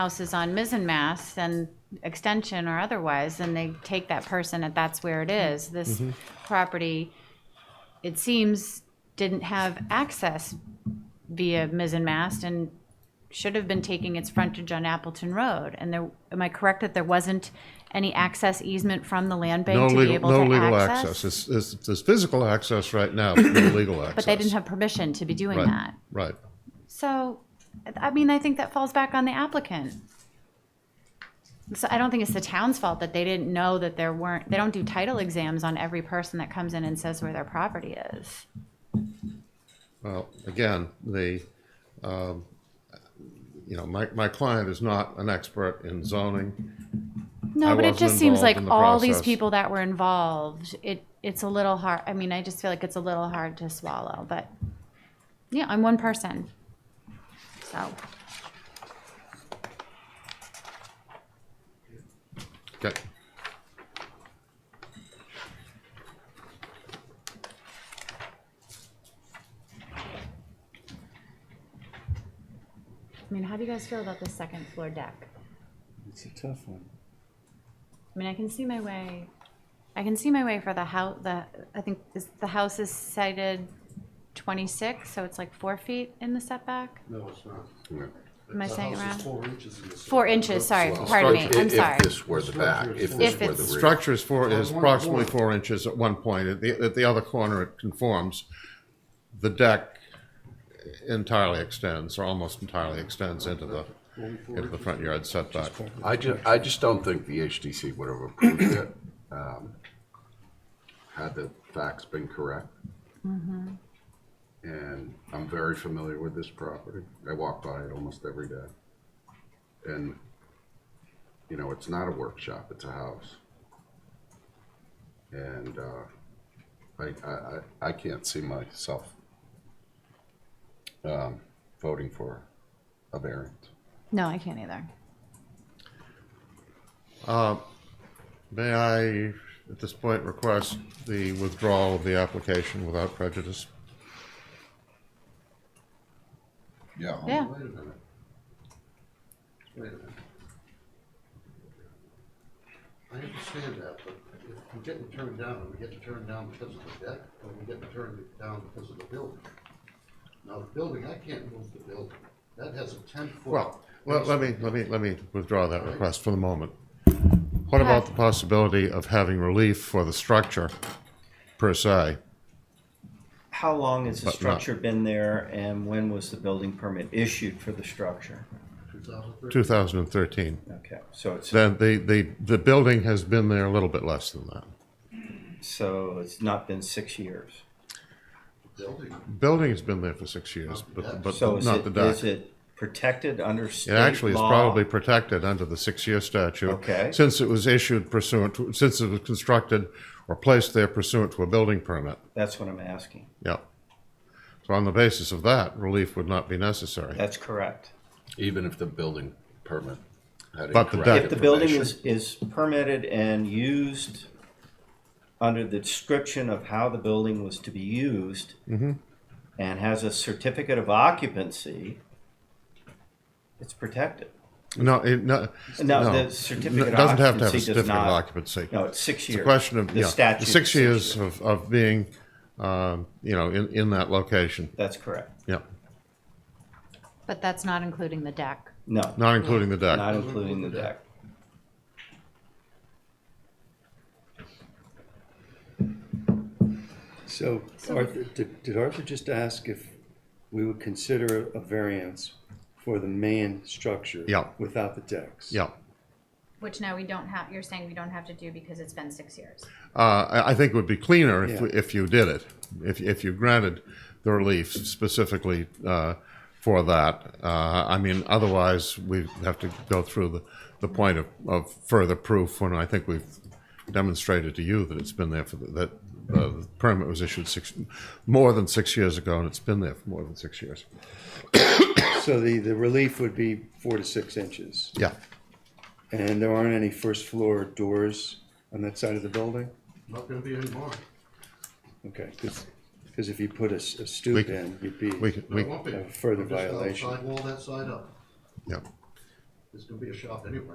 houses on Mizzenmast and extension or otherwise, and they take that person and that's where it is. This Mm-hmm. property, it seems, didn't have access via Mizzenmast and should have been taking its frontage on Appleton Road. And there, am I correct that there wasn't any access easement from the land No bank to be legal, able no to legal access. access? It's, it's, there's physical access right now, but no legal access. But they didn't have permission to be doing Right, that. Right. So, I mean, I think that falls back on the applicant. So I don't think it's the town's fault that they didn't know that there weren't, they don't do title exams on every person that comes in and says where their property is. Well, again, the, um, you know, my, my client is not an expert in zoning. I No, but it wasn't just seems involved like in the all these process. people that were involved, it, it's a little hard, I mean, I just feel like it's a little hard to swallow, but, yeah, I'm one person. So, Okay. I mean, how do you guys feel about this second floor deck? It's a tough one. I mean, I can see my way, I can see my way for the house, the, I think, is, the house is cited twenty-six, so it's like four feet in the setback? No, it's not. Am I saying it The house is wrong? four inches in the setback. Four inches, sorry, Well, pardon me, Structure- I'm if- sorry. If this were the back, if this If were it's- the rear. Structure is four, is approximately four inches at one point. At the, at the other corner, it conforms. The deck entirely extends, or almost entirely extends into the, into the front yard setback. I ju, I just don't think the HDC would have approved it, um, had the facts been correct. And I'm very familiar with this property. I walk by it almost every day. And, you know, it's not a workshop, it's a house. And, uh, I, I, I, I can't see myself, um, voting for a variance. No, I can't either. May I, at this point, request the withdrawal of the application without prejudice? Yeah. Yeah, Oh, Wait a minute. Wait a minute. I understand that, but if we're getting turned down, we get to turn down because of the deck, or we get to turn down because of the building. Now, the building, I can't move the building. That has a ten foot. Well, let, let me, let me, let me withdraw that request for the moment. What Go ahead. about the possibility of having relief for the structure per se? How long has But the not- structure been there and when was the building permit issued for the structure? 2013. 2013. Okay, so it's, Then the, the, the building has been there a little bit less than that. so it's not been six years. Building, Building has been there for six years, but, but So is not the it, deck. is it protected under state It law? actually is probably protected under the six-year statute. Okay. Since it was issued pursuant, to- since it was constructed or placed there pursuant to a building permit. That's what I'm asking. Yep. So on the basis of that, relief would not be necessary. That's correct. Even if the building permit had. But the incorrect deck- If the building information. is, is permitted and used under the description of how the building was to be used Mm-hmm. and has a certificate of occupancy, it's protected. No, it, no. No, no. the certificate It of doesn't have to have a occupancy does certificate of not- occupancy. No, it's six years. It's a question of, The yeah, statute is six years years. of, of being, um, you know, in, in that location. That's correct. Yeah, but that's not including the deck. No, not including the deck. not including the deck. So Arthur, did did Arthur just ask if we would consider a variance for the main structure? Yeah. Without the decks? Yeah. Which now we don't have, you're saying we don't have to do because it's been six years. Uh, I, I think it would be cleaner if, Yeah. if you did it, if, if you granted the relief specifically uh, for that. Uh, I mean, otherwise, we have to go through the, the point of, of further proof when I think we've demonstrated to you that it's been there for the, that uh, the permit was issued six more than six years ago and it's been there for more than six years. So the, the relief would be four to six inches. Yeah. And there aren't any first floor doors on that side of the building? not gonna be anymore. Okay, because, if you put a s- a stoop We- in, you'd be. We, can- we, There won't be. A further We'll just have a violation. Sidewall that side up. yeah. There's gonna be a shop anyway.